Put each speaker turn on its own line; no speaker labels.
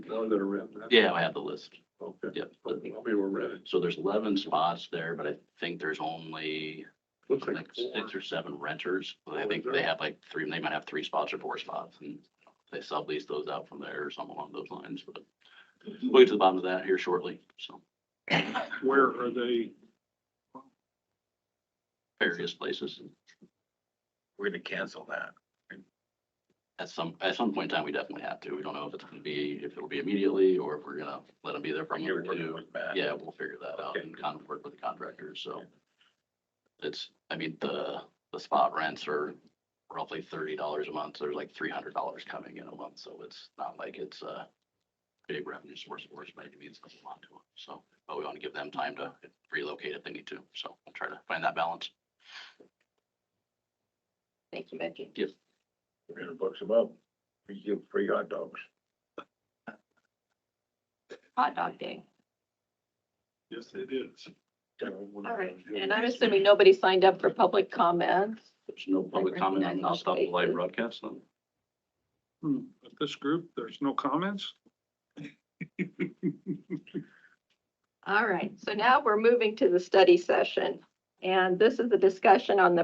Those that are renting. that's-
Yeah, I have the list.
Okay.
Yep.
Well, We were renting.
So there's eleven spots there, but I think there's only
Looks
like
like four.
six or seven renters. I
Oh,
think
is
they
there?
have like three, they might have three spots or four spots and they sublease those out from there or something along those lines, but we'll get to the bottom of that here shortly, so
Where are they?
various places.
We're gonna cancel that.
At some, at some point in time, we definitely have to. We don't know if it's gonna be, if it'll be immediately or if we're gonna let them be there for a
You're
year or
working
two.
with Matt.
Yeah, we'll figure that out
Okay.
and kind of work with the contractors, so. It's, I mean, the, the spot rents are roughly thirty dollars a month, so there's like three hundred dollars coming in a month, so it's not like it's a big revenue source for us, but it means a lot to them, so, but we want to give them time to relocate if they need to, so we'll try to find that balance.
Thank you, Becky.
We're gonna book some up. We give free hot dogs.
Hot dog day.
Yes, it is.
All right. And I'm assuming nobody signed up for public comments.
There's no public comment, on- I'll stop the live broadcast, then.
Hmm, But this group, there's no comments?
All right. So now we're moving to the study session. And this is the discussion on the